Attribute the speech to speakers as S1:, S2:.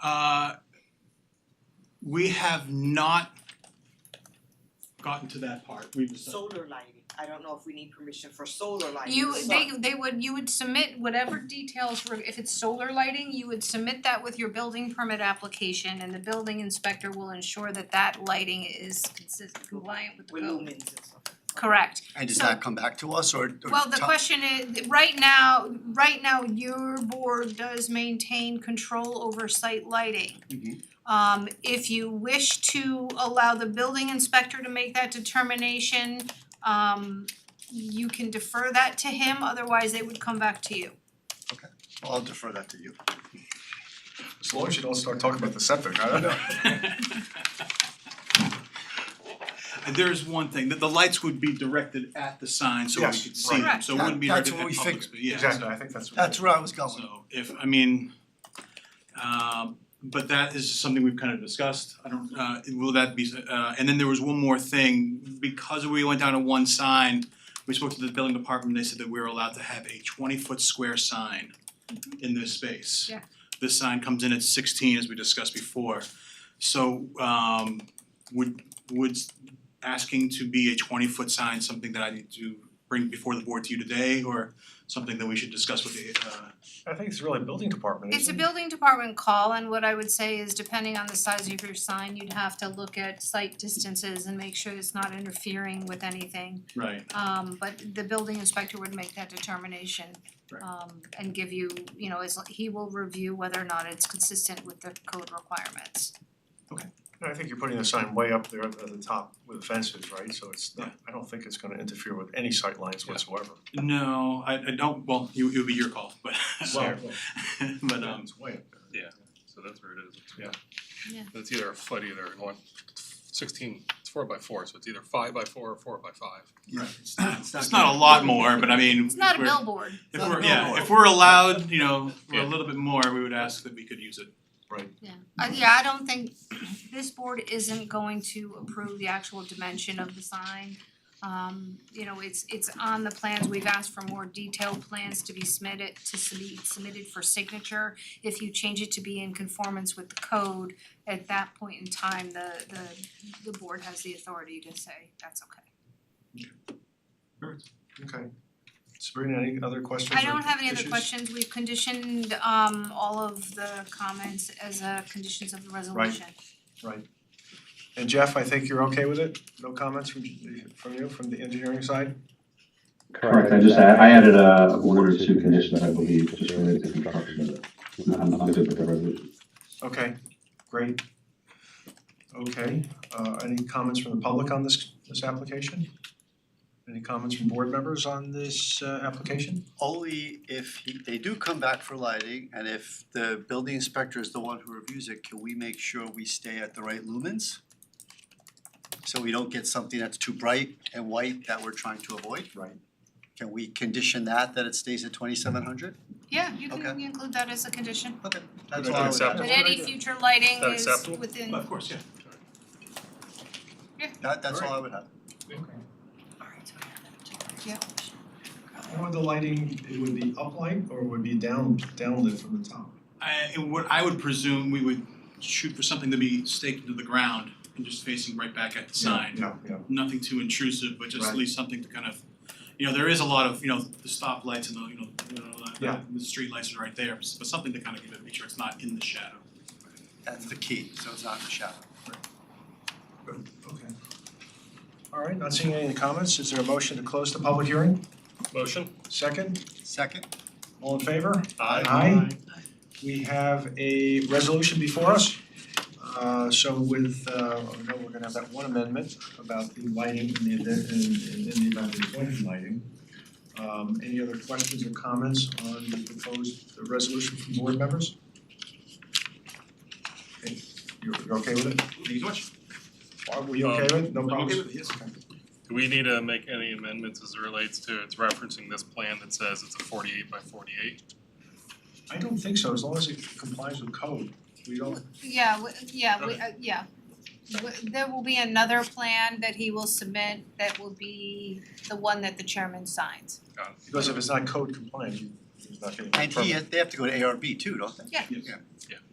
S1: Uh we have not gotten to that part, we've decided.
S2: solar lighting, I don't know if we need permission for solar lighting.
S3: You
S2: Sun.
S3: they they would you would submit whatever details were if it's solar lighting, you would submit that with your building permit application and the building inspector will ensure that that lighting is consistent compliant with the
S2: With
S3: code.
S2: lumens and stuff.
S3: Correct.
S4: And does
S3: So-
S4: that come back to us or or
S3: Well, the
S4: to-
S3: question is, right now, right now, your board does maintain control over site lighting.
S4: Mhm.
S3: Um if you wish to allow the building inspector to make that determination, um you can defer that to him, otherwise they would come back to you.
S4: I'll defer that to you.
S5: As long as you don't start talking about the septic, I don't know.
S1: There is one thing, that the lights would be directed at the sign so we
S5: Yes,
S1: could see
S3: right.
S1: them, so it wouldn't be
S4: That-
S1: directed
S4: that's what
S1: at
S4: we
S1: public
S4: figured.
S1: space, yeah,
S5: Exactly,
S1: so-
S5: I think that's.
S4: That's where I was going.
S1: So if, I mean, um but that is something we've kind of discussed, I don't, uh will that be, uh and then there was one more thing, because we went down to one sign, we spoke to the building department, they said that we were allowed to have a twenty foot square sign in this space.
S3: Yeah.
S1: This sign comes in at sixteen, as we discussed before, so um would would asking to be a twenty foot sign something that I need to bring before the board to you today, or something that we should discuss with the uh
S5: I think it's really building department,
S3: It's a
S5: isn't it?
S3: building department call, and what I would say is depending on the size of your sign, you'd have to look at site distances and make sure it's not interfering with anything.
S1: Right,
S3: Um but the building inspector would make that determination.
S1: Right.
S3: Um and give you, you know, as he will review whether or not it's consistent with the code requirements.
S5: And I think you're putting the sign way up there at the top with the fences, right? So it's not, I don't think it's gonna interfere with any sight lines
S1: Yeah.
S5: whatsoever.
S1: no, I I don't, well, you it would be your call, but
S5: Well,
S1: but um
S5: It's way up there.
S6: So that's where it is. It's-
S5: Yeah.
S3: Yeah.
S6: But It's either a foot, either one, sixteen, it's four by four, so it's either five by four or four by five.
S1: Right. it's not a lot more, but I mean,
S3: It's not a
S1: we're-
S3: billboard,
S1: If
S4: Not a
S1: we're, yeah,
S4: billboard.
S1: if we're allowed, you know, for a
S6: Yeah.
S1: little bit more, we would ask that we could use it.
S3: yeah. Uh yeah, I don't think this board isn't going to approve the actual dimension of the sign. Um you know, it's it's on the plans, we've asked for more detailed plans to be submitted to submit submitted for signature. If you change it to be in conformance with the code, at that point in time, the the the board has the authority to say that's okay.
S5: Okay. Sabrina, any other questions
S3: I
S5: or
S3: don't have any other
S5: issues?
S3: questions, we've conditioned um all of the comments as uh conditions of the resolution.
S5: And Jeff, I think you're okay with it? No comments from from you, from the engineering side?
S7: Correct, I just, I I added a a one or two conditions, I believe, just related to construction, but it's not, I'm not good with the resolution.
S5: Okay, great. Okay, uh any comments from the public on this this application? Any comments from board members on this uh application?
S4: Only if he- they do come back for lighting and if the building inspector is the one who reviews it, can we make sure we stay at the right lumens? So we don't get something that's too bright and white that we're trying to avoid?
S5: Right.
S4: Can we condition that, that it stays at twenty-seven hundred?
S3: Yeah, you can
S4: Okay.
S3: include that as a condition.
S4: Okay, that's
S5: that
S4: all I would add.
S5: acceptable?
S3: But
S5: That's a good
S3: any
S5: idea.
S3: future lighting
S6: that
S3: is
S6: acceptable?
S3: within
S1: Of course, yeah.
S4: That, that's all I would have.
S5: How would the lighting, it would be uplight or would be down downlit from the top?
S1: I it would, I would presume we would shoot for something to be staked into the ground and just facing right back at the sign.
S5: Yeah, yeah.
S1: Nothing too intrusive, but just at
S5: Right.
S1: least something to kind of, you know, there is a lot of, you know, the stoplights and the, you know, you know, the-
S5: Yeah.
S1: the street lights are right there, but something to kind of give it, make sure it's not in the shadow.
S4: That's the key, so it's not in the shadow.
S5: Okay. All right, not seeing any comments, is there a motion to close the public hearing?
S6: Motion?
S5: Second,
S4: Second,
S5: all in favor?
S6: Aye.
S5: Aye. We have a resolution before us. Uh so with uh, I know we're gonna have that one amendment about the lighting in the event in in in the event of appointed lighting. Um any other questions or comments on the proposed the resolution from board members? Okay, you're you're okay with it?
S1: Thank you so much. Um,
S5: Barb, were you okay with it? No
S1: I'm okay
S5: problems?
S1: with it, yes.
S6: Do we need to make any amendments as it relates to, it's referencing this plan that says it's a forty-eight by forty-eight?
S5: I don't think so, as long as it complies with code, we don't,
S3: Yeah, w- yeah, we, uh, yeah. W- There will be another plan that he will submit that will be the one that the chairman signs.
S5: because if it's not code compliant, you- it's not getting a
S4: and he,
S5: permit.
S4: they have to go to ARB too, don't they?
S3: Yeah.
S1: Yes.
S4: Yeah.
S6: Yeah.